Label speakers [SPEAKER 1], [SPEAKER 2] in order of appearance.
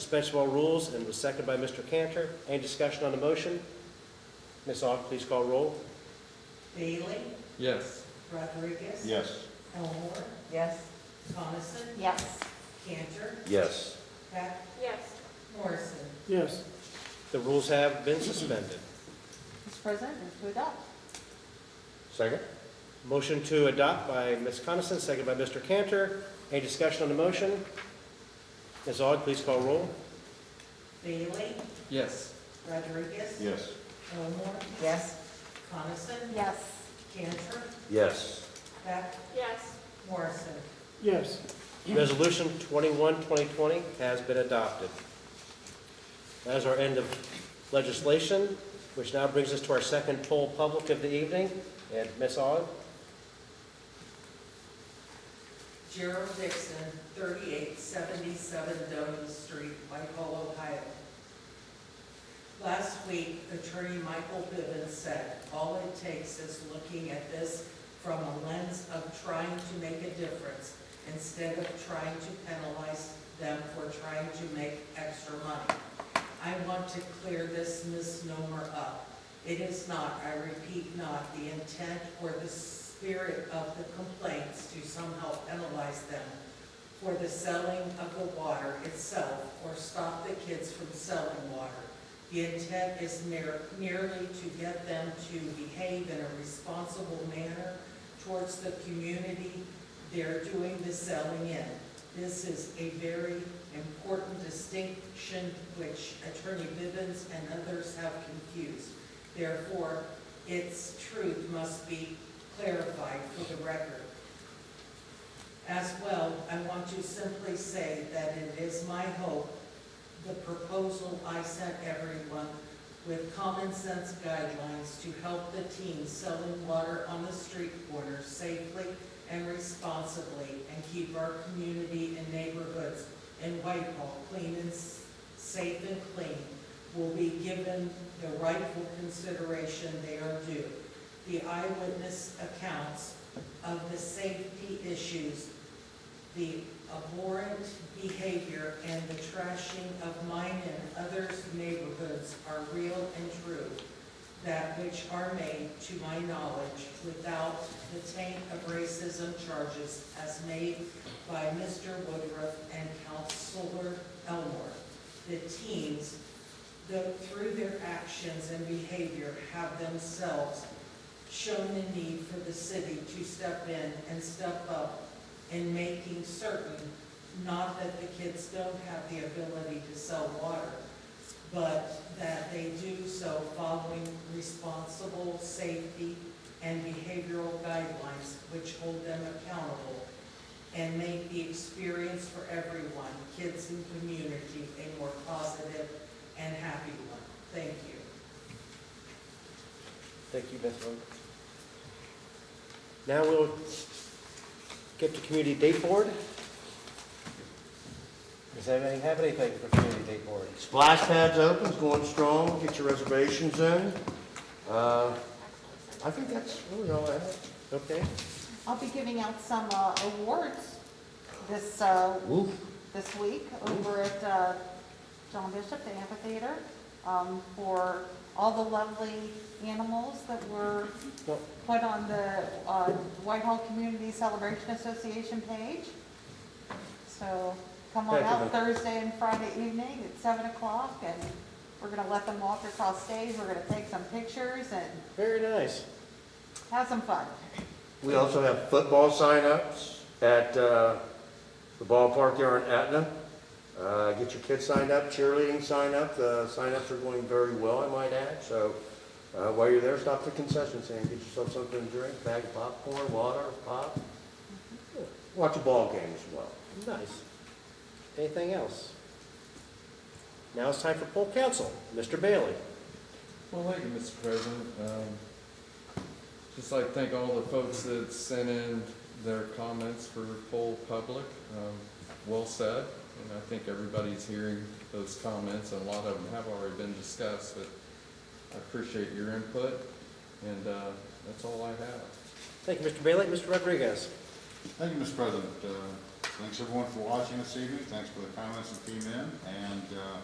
[SPEAKER 1] suspension of all rules, and was seconded by Mr. Cantor. Any discussion on the motion? Ms. Aug, please call roll.
[SPEAKER 2] Bailey,
[SPEAKER 3] Yes.
[SPEAKER 2] Rodriguez.
[SPEAKER 4] Yes.
[SPEAKER 2] Elmore,
[SPEAKER 5] Yes.
[SPEAKER 2] Coniston,
[SPEAKER 5] Yes.
[SPEAKER 2] Cantor,
[SPEAKER 4] Yes.
[SPEAKER 2] Peck,
[SPEAKER 6] yes,
[SPEAKER 2] Morrison.
[SPEAKER 1] Yes. The rules have been suspended.
[SPEAKER 5] Mr. President, move to adopt.
[SPEAKER 4] Second?
[SPEAKER 1] Motion to adopt by Ms. Coniston, seconded by Mr. Cantor. Any discussion on the motion? Ms. Aug, please call roll.
[SPEAKER 2] Bailey,
[SPEAKER 3] Yes.
[SPEAKER 2] Rodriguez.
[SPEAKER 4] Yes.
[SPEAKER 2] Elmore,
[SPEAKER 5] Yes.
[SPEAKER 2] Coniston,
[SPEAKER 5] Yes.
[SPEAKER 2] Cantor,
[SPEAKER 4] Yes.
[SPEAKER 2] Peck,
[SPEAKER 6] yes,
[SPEAKER 2] Morrison.
[SPEAKER 1] Yes. Resolution 21, 2020 has been adopted. That is our end of legislation, which now brings us to our second poll public of the evening. And Ms. Aug?
[SPEAKER 2] Gerald Dixon, thirty-eight seventy-seven Dolan Street, Michael, Ohio. Last week, Attorney Michael Bivens said, "All it takes is looking at this from a lens of trying to make a difference instead of trying to penalize them for trying to make extra money." I want to clear this misnomer up. It is not, I repeat, not the intent or the spirit of the complaints to somehow penalize them for the selling of the water itself or stop the kids from selling water. The intent is mer- merely to get them to behave in a responsible manner towards the community they're doing the selling in. This is a very important distinction which Attorney Bivens and others have confused. Therefore, its truth must be clarified for the record. As well, I want to simply say that it is my hope, the proposal I sent everyone with common sense guidelines to help the teens selling water on the street corner safely and responsibly and keep our community and neighborhoods in Whitehall clean and s- safe and clean will be given the rightful consideration they are due. The eyewitness accounts of the safety issues, the abhorrent behavior, and the trashing of mine and others' neighborhoods are real and true, that which are made, to my knowledge, without the taint of racism charges as made by Mr. Woodruff and Counselor Elmore. The teens, though through their actions and behavior, have themselves shown the need for the city to step in and step up in making certain, not that the kids don't have the ability to sell water, but that they do so following responsible safety and behavioral guidelines which hold them accountable and make the experience for everyone, kids and community, a more positive and happy one. Thank you.
[SPEAKER 1] Thank you, Ms. Aug. Now we'll get to Community Date Board. Does anybody have anything for Community Date Board?
[SPEAKER 4] Splash pad's open, it's going strong, get your reservations in. Uh, I think that's really all I have.
[SPEAKER 1] Okay.
[SPEAKER 5] I'll be giving out some uh, awards this, uh,
[SPEAKER 4] Ooh.
[SPEAKER 5] this week over at uh, John Bishop, the amphitheater, um, for all the lovely animals that were
[SPEAKER 1] Well-
[SPEAKER 5] put on the uh, Whitehall Community Celebration Association page. So come on
[SPEAKER 1] Thank you,
[SPEAKER 5] out Thursday and Friday evening at 7 o'clock, and we're going to let them walk across stage. We're going to take some pictures and
[SPEAKER 1] Very nice.
[SPEAKER 5] have some fun.
[SPEAKER 4] We also have football signups at uh, the ballpark there in Etna. Uh, Get your kids signed up, cheerleading sign up. The signups are going very well, I might add. So uh, while you're there, stop at the concession stand, get yourself something to drink, bag of popcorn, water, pop. Watch a ball game as well.
[SPEAKER 1] Nice. Anything else? Now it's time for poll council. Mr. Bailey.
[SPEAKER 3] Well, thank you, Mr. President. Um, just like to thank all the folks that sent in their comments for full public. Um, well said, and I think everybody's hearing those comments, and a lot of them have already been discussed, but I appreciate your input, and, uh, that's all I have.
[SPEAKER 1] Thank you, Mr. Bailey. Mr. Rodriguez.
[SPEAKER 7] Thank you, Mr. President. Uh,
[SPEAKER 6] Thanks everyone for watching this evening, thanks for the comments that came in, and, uh,